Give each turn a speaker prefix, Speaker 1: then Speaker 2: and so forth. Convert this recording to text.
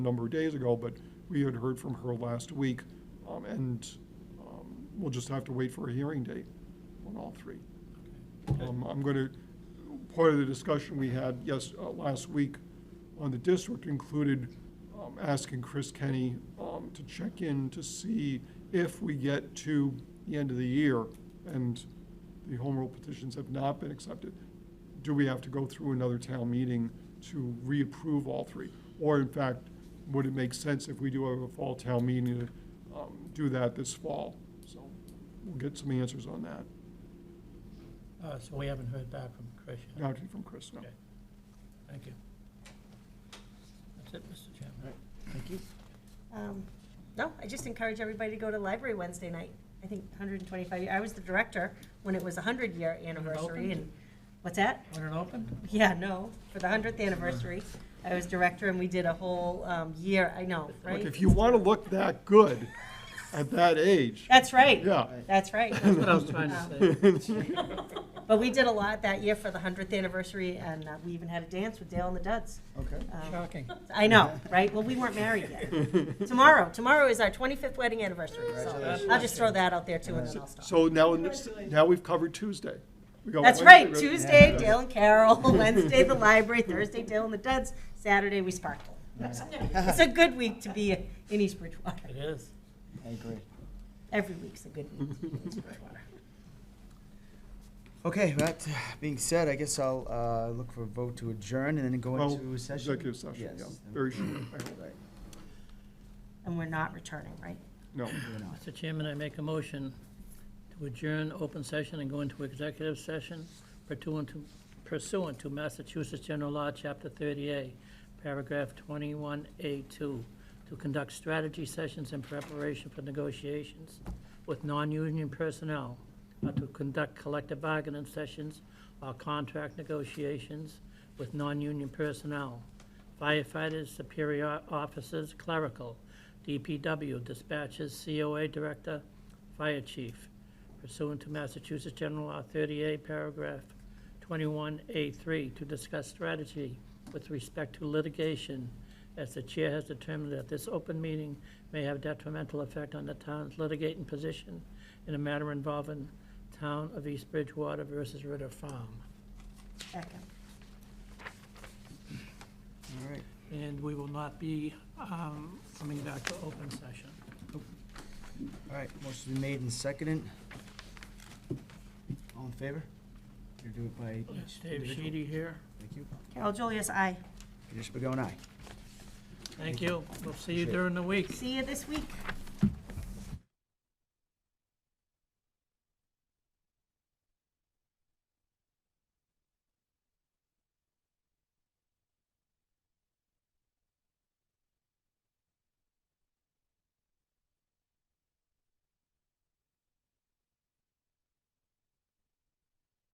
Speaker 1: a number of days ago, but we had heard from her last week, um, and um, we'll just have to wait for a hearing date on all three. Um, I'm going to, part of the discussion we had, yes, uh, last week on the district included um, asking Chris Kenny um, to check in to see if we get to the end of the year and the home rule petitions have not been accepted, do we have to go through another town meeting to reapprove all three? Or in fact, would it make sense if we do have a fall town meeting to um, do that this fall? So we'll get some answers on that,
Speaker 2: Uh, So we haven't heard back from Chris yet.
Speaker 1: not from Chris, no.
Speaker 2: Okay. Thank you. That's it, Mr. Chairman. Thank you.
Speaker 3: Um, No, I just encourage everybody to go to Library Wednesday night. I think 125, year- I was the director when it was 100 year anniversary
Speaker 2: opened?
Speaker 3: and, what's that?
Speaker 2: Want it open?
Speaker 3: Yeah, no, for the 100th anniversary, I was director and we did a whole um, year, I know,
Speaker 1: Look,
Speaker 3: right?
Speaker 1: if you want to look that good at that age,
Speaker 3: That's right.
Speaker 1: yeah.
Speaker 3: That's right.
Speaker 2: That's what I was trying to say.
Speaker 3: But we did a lot that year for the 100th anniversary and uh, we even had a dance with Dale and the Duds.
Speaker 1: Okay.
Speaker 3: Um,
Speaker 2: Shocking.
Speaker 3: I know, right? Well, we weren't married yet. Tomorrow, tomorrow is our 25th wedding anniversary. So I'll just throw that out there too and then I'll stop.
Speaker 1: So now, now we've covered Tuesday. We got
Speaker 3: That's
Speaker 1: Wednesday,
Speaker 3: right, Tuesday, Dale and Carol, Wednesday, the library, Thursday, Dale and the Duds, Saturday, we sparkle. It's a good week to be in East Bridgewater.
Speaker 2: It is.
Speaker 4: I agree.
Speaker 3: Every week's a good week to be in East Bridgewater.
Speaker 4: Okay, that being said, I guess I'll uh, look for a vote to adjourn and then go
Speaker 1: Well,
Speaker 4: into session.
Speaker 1: Executive session, yeah,
Speaker 4: Yes.
Speaker 1: very short, I hope.
Speaker 4: Right.
Speaker 3: And we're not returning, right?
Speaker 1: No,
Speaker 2: Mr. Chairman, I make a motion to adjourn open session and go into executive session pursuant to- pursuant to Massachusetts General Law, Chapter 30A, Paragraph 21A2, to conduct strategy sessions in preparation for negotiations with non-union personnel, or to conduct collective bargaining sessions or contract negotiations with non-union personnel, firefighters, superior officers, clerical, DPW dispatches, COA director, fire chief, pursuant to Massachusetts General Law 38, paragraph 21A3, to discuss strategy with respect to litigation, as the chair has determined that this open meeting may have detrimental effect on the town's litigating position in a matter involving town of East Bridgewater versus Ritter Farm.
Speaker 3: Second.
Speaker 4: All right.
Speaker 2: And we will not be um, coming back to open session.
Speaker 4: All right, motion's been made and seconded. All in favor? You do it by
Speaker 2: Is
Speaker 4: each
Speaker 2: Dave
Speaker 4: individual.
Speaker 2: Sheedy here?
Speaker 4: Thank you.
Speaker 3: Carol Julius, aye.
Speaker 4: Peter Spigot, aye.
Speaker 2: Thank you. We'll see you
Speaker 4: Appreciate it.
Speaker 2: during the week.
Speaker 3: See you this week.